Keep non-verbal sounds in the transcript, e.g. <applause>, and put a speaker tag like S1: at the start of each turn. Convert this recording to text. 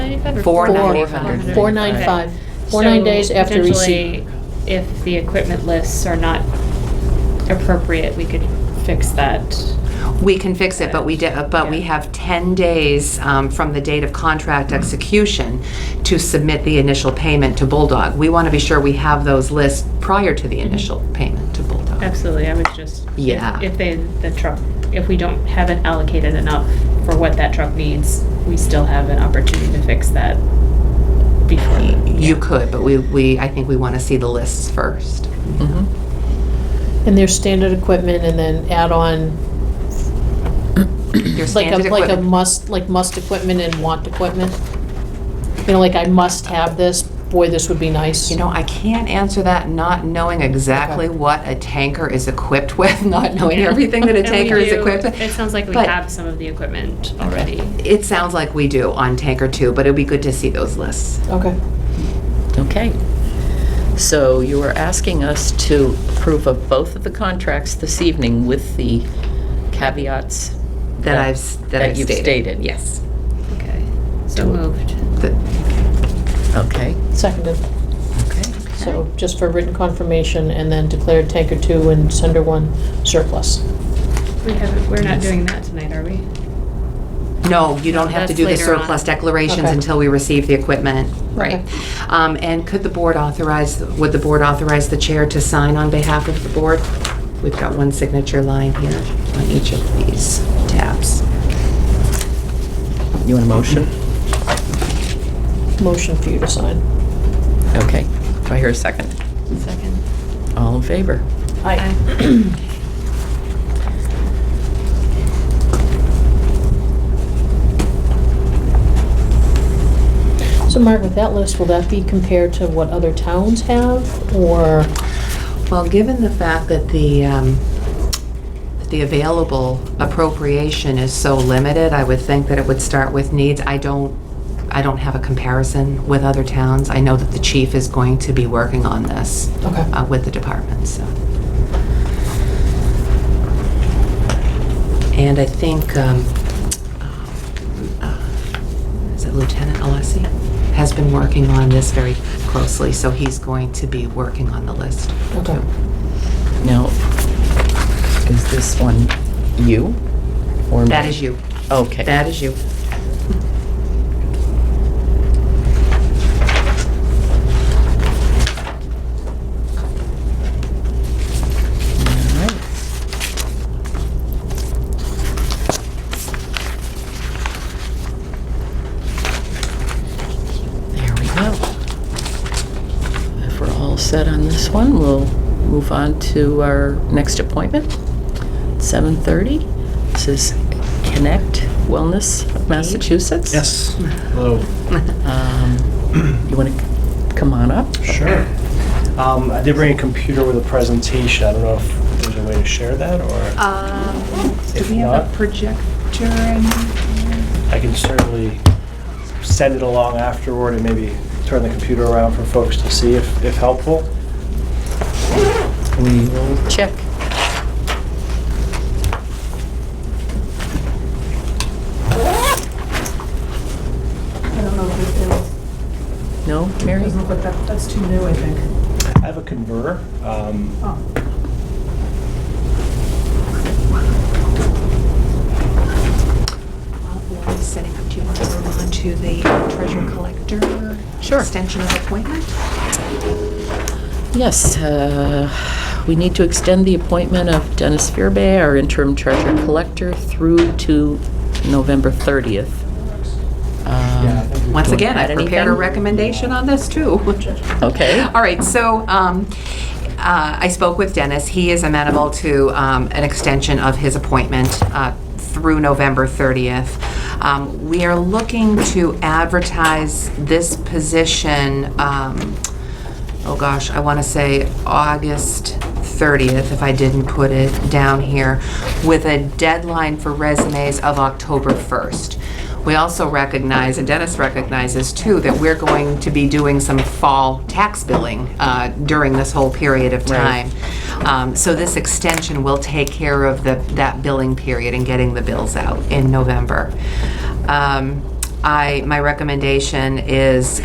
S1: ninety-five?
S2: Four ninety-
S3: Four nine five. Four nine days after receipt.
S1: If the equipment lists are not appropriate, we could fix that.
S2: We can fix it, but we, de- but we have 10 days um, from the date of contract execution to submit the initial payment to Bulldog. We want to be sure we have those lists prior to the initial payment to Bulldog.
S1: Mm-hmm. Absolutely, I was just. if-
S2: Yeah.
S1: If they, the truck, if we don't, haven't allocated enough for what that truck needs, we still have an opportunity to fix that before. the-
S2: You could, but we, we, I think we want to see the lists
S1: <clears throat>
S2: first.
S3: And there's standard equipment and then add on
S2: Your
S3: like a,
S2: standard
S3: like a
S2: equipment.
S3: must, like must equipment and want equipment. You know, like I must have this, boy, this would be nice.
S2: You know, I can't answer that not knowing exactly
S3: Okay.
S2: what a tanker is equipped <laughs> with, not knowing everything that
S1: <laughs>
S2: a
S1: And we
S2: tanker is
S1: do-
S2: equipped with.
S1: It sounds like we
S2: But-
S1: have some of the equipment already.
S2: It sounds like we do on tanker two, but it'd be good to see those lists.
S3: Okay.
S4: Okay. So you are asking us to approve of both of the contracts this evening with the caveats?
S2: That I've, s- that
S4: That
S2: I've
S4: you've
S2: stated.
S4: stated.
S2: Yes.
S1: Okay, so
S4: Do-
S1: moved.
S2: The-
S4: Okay,
S3: Seconded.
S4: okay.
S3: So just for written confirmation and then declare tanker two and sender one surplus.
S1: We haven't, we're not doing that tonight, are we?
S2: No, you don't have to
S1: That's
S2: do the
S1: later on.
S2: surplus declarations
S3: Okay.
S2: until we receive the equipment.
S4: Right.
S2: Um, And could the board authorize, would the board authorize the chair to sign on behalf of the board? We've got one signature line here on each of these tabs.
S4: You want a motion?
S3: Motion for you to sign.
S4: Okay. Do I hear a second?
S1: Second.
S4: All in favor?
S3: Aye. So Mark, with that list, will that be compared to what other towns have, or,
S2: Well, given the fact that the, um, that the available appropriation is so limited, I would think that it would start with needs. I don't, I don't have a comparison with other towns. I know that the chief is going to be working on this
S3: okay,
S2: uh, with the department, so. And I think, um, uh, is it Lieutenant Alessi? Has been working on this very closely, so he's going to be working on the list.
S3: okay.
S4: Now, is this one you or me?
S2: That is you.
S4: Okay.
S2: That is you.
S4: All right. There we go. If we're all set on this one, we'll move on to our next appointment, 7:30. This is Connect Wellness of Massachusetts.
S5: Yes. Hello.
S4: Um, You want to come on up?
S5: Sure. Um, I did bring a computer with a presentation. I don't know if there's a way to share that or
S2: Do
S5: If Um, we have a not-
S2: projector in?
S5: I can certainly send it along afterward and maybe turn the computer around for folks to see if, if helpful.
S4: We will check.
S6: I don't know if it will.
S4: No,
S6: It
S4: Mary?
S6: doesn't look like that, that's too new, I think.
S5: I have a converter. Um,
S6: Oh,
S2: Uh, Setting up, do you want to move on to the treasure collector?
S4: Sure.
S2: Extension of appointment?
S4: Yes, uh, we need to extend the appointment of Dennis Fearbay, our interim treasurer collector, through to November 30th. Um,
S5: yeah, I think we-
S2: Once
S4: wanna
S2: again, I
S4: add
S2: prepared a
S4: anything?
S2: recommendation on this too. <laughs>
S4: Okay.
S2: All right, so um, uh, I spoke with Dennis. He is amenable to um, an extension of his appointment uh, through November 30th. Um, We are looking to advertise this position, um, oh gosh, I want to say August 30th, if I didn't put it down here, with a deadline for resumes of October 1st. We also recognize, and Dennis recognizes too, that we're going to be doing some fall tax billing uh, during this whole period of time. Um, So this extension will take care of the- that billing period and getting the bills out in November. Um, I, my recommendation is